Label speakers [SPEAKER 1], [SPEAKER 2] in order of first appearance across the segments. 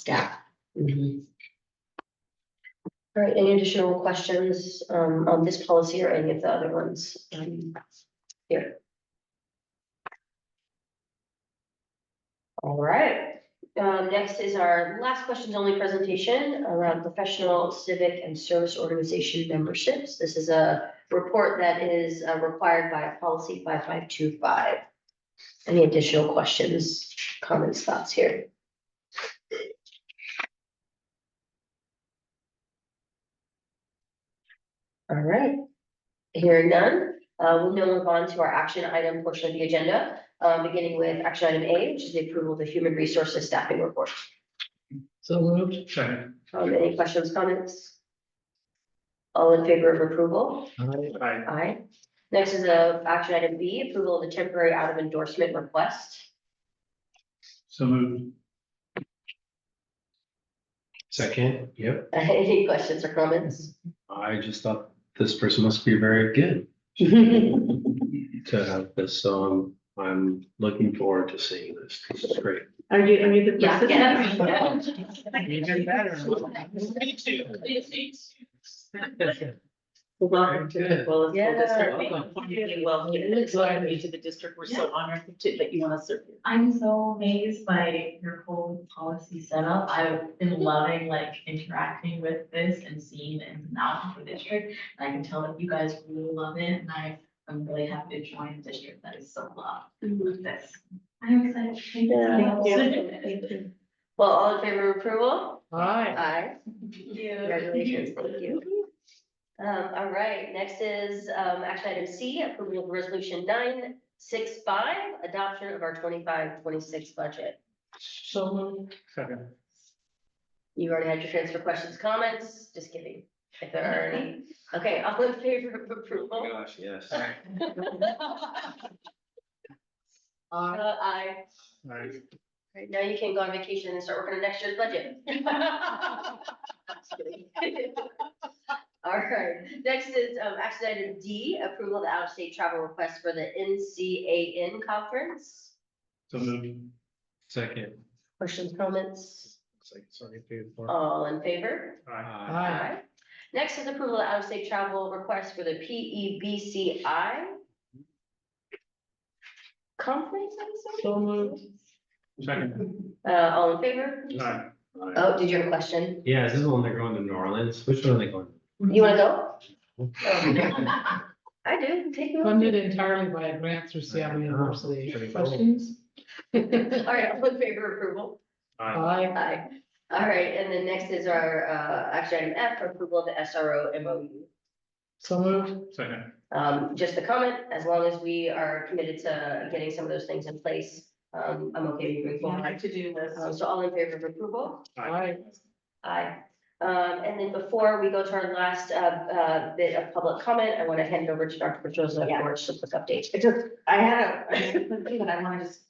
[SPEAKER 1] staff.
[SPEAKER 2] All right, any additional questions um on this policy or any of the other ones? um, Here. All right, um next is our last questions only presentation around professional, civic and service organization memberships. This is a report that is uh, required by policy five five two five. Any additional questions, comments, thoughts here? All right. Hearing none, uh, we'll now move on to our action item portion of the agenda, uh, beginning with action item A, which is the approval of the human resources staffing report.
[SPEAKER 1] So moved. Second.
[SPEAKER 2] Um, any questions, comments? All in favor of approval?
[SPEAKER 1] Aye.
[SPEAKER 2] Aye. Next is a action item B, approval of the temporary out of endorsement request.
[SPEAKER 1] So moved. Second, yep.
[SPEAKER 2] Any questions or comments?
[SPEAKER 3] I just thought this person must be very good
[SPEAKER 2] All
[SPEAKER 3] to have this, um, I'm looking forward to seeing this, this is great.
[SPEAKER 4] Are you, are you the
[SPEAKER 2] Yeah,
[SPEAKER 4] person?
[SPEAKER 2] yeah.
[SPEAKER 1] Even better.
[SPEAKER 4] Welcome to the, well,
[SPEAKER 2] Yeah.
[SPEAKER 4] well, district.
[SPEAKER 5] Welcome.
[SPEAKER 4] Welcome to the- Welcome to the district. to the district. We're so honored to, that you want to serve. here.
[SPEAKER 5] I'm so amazed by your whole policy setup. I've been loving like interacting with this and seeing the ins and outs of the district. And I can tell that you guys really love it and I, I'm really happy to join a district that is so loved with this. I'm excited. Thank
[SPEAKER 2] Yeah.
[SPEAKER 5] you.
[SPEAKER 2] Well, all in favor of approval?
[SPEAKER 4] Hi.
[SPEAKER 2] Aye.
[SPEAKER 5] Thank you.
[SPEAKER 2] Congratulations, thank you. Um, all right, next is, um, action item C, approval of resolution nine six five, adoption of our 25-26 budget.
[SPEAKER 4] So moved.
[SPEAKER 1] Second.
[SPEAKER 2] You already had your transfer questions, comments, just kidding, if there are any. Okay, all in favor of approval?
[SPEAKER 3] Oh gosh, yes.
[SPEAKER 2] Uh, aye.
[SPEAKER 1] Aye.
[SPEAKER 2] All right, now you can go on vacation and start working on next year's budget. Just kidding. All right, next is, um, action item D, approval of the out-of-state travel request for the NCAN conference.
[SPEAKER 1] So moved.
[SPEAKER 3] Second.
[SPEAKER 2] Questions, comments,
[SPEAKER 3] Looks like it's already paid for.
[SPEAKER 2] all in favor?
[SPEAKER 3] Oh.
[SPEAKER 1] Aye.
[SPEAKER 2] Aye. Next is approval of out-of-state travel request for the E PEBCI conference, I'm sorry.
[SPEAKER 4] So moved.
[SPEAKER 1] Second.
[SPEAKER 2] Uh, all in favor?
[SPEAKER 1] Aye.
[SPEAKER 2] Oh, did you have a question?
[SPEAKER 3] Yeah, is this the one they're going to New Orleans? Which one are they going?
[SPEAKER 2] You wanna go? Oh, I do, take me. with you.
[SPEAKER 6] Funded entirely by a grant through Seattle University.
[SPEAKER 3] Pretty cool.
[SPEAKER 6] Questions?
[SPEAKER 2] All right, all in favor of approval?
[SPEAKER 1] Aye.
[SPEAKER 6] Aye.
[SPEAKER 2] Aye. All right, and then next is our, uh, action item F, approval of the SRO MOU.
[SPEAKER 6] So moved.
[SPEAKER 1] Second.
[SPEAKER 2] Um, just a comment, as long as we are committed to getting some of those things in place, um, I'm okay moving
[SPEAKER 4] My
[SPEAKER 2] forward.
[SPEAKER 4] to-do
[SPEAKER 2] Um,
[SPEAKER 4] list.
[SPEAKER 2] so all in favor of approval?
[SPEAKER 6] Aye.
[SPEAKER 2] Aye. Um, and then before we go to our last, uh, uh, bit of public comment, I want to hand it over to Dr. Petrosa
[SPEAKER 4] Yeah.
[SPEAKER 2] for some quick update.
[SPEAKER 4] It just, I had a, I had a quick thing, but I want to just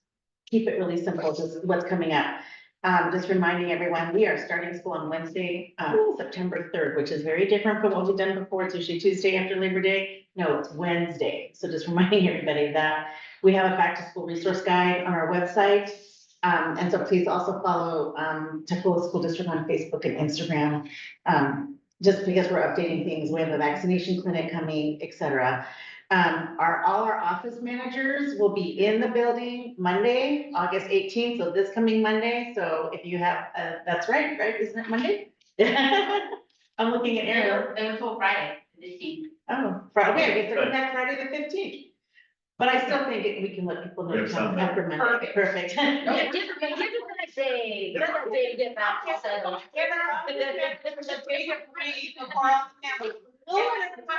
[SPEAKER 4] keep it really simple, just what's coming up. Um, just reminding everyone, we are starting school on Wednesday, uh, September third, which is very different from what we've done before. It's usually Tuesday after Labor Day. No, it's Wednesday. So just reminding everybody of that. We have a back to school resource guide on our website. Um, and so please also follow, um, Tacoma School District on Facebook and Instagram. Um, just because we're updating things, we have a vaccination clinic coming, et cetera. Um, our, all our office managers will be in the building Monday, August eighteenth, so this coming Monday, so if you have, uh, that's right, right, isn't it Monday? I'm looking at Ariel,
[SPEAKER 5] until Friday, this week.
[SPEAKER 4] oh, Friday, okay, we threw back Friday the fifteenth. But I still think it- we can let people know
[SPEAKER 1] We have
[SPEAKER 4] to come
[SPEAKER 1] Sunday.
[SPEAKER 4] after Monday, perfect.
[SPEAKER 2] Yeah, give her- give her that day. Give her that day to get back to settle.
[SPEAKER 4] We'll let everyone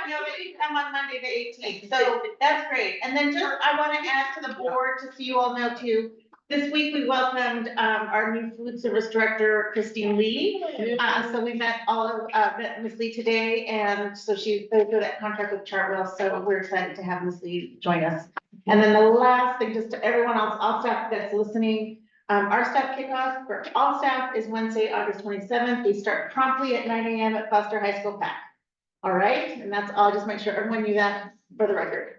[SPEAKER 4] know if you come on Monday, the eighteenth, so that's great. And then just, I want to add to the board, just so you all know too, this week we welcomed, um, our new food service director, Christine Lee. Uh, so we met all of, uh, met Ms. Lee today, and so she, they do that contract with Chartwell, so we're excited to have Ms. Lee join us. And then the last thing, just to everyone else, all staff that's listening, um, our staff kickoff for all staff is Wednesday, August twenty-seventh. We start promptly at nine AM at Foster High School Pack. All right, and that's all, just make sure everyone knew that for the record.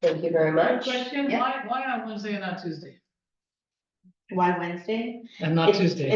[SPEAKER 2] Thank you very much.
[SPEAKER 6] Question,
[SPEAKER 2] Yeah.
[SPEAKER 6] why, why on Wednesday and not Tuesday?
[SPEAKER 4] Why Wednesday?
[SPEAKER 6] And not
[SPEAKER 4] It's-
[SPEAKER 6] Tuesday?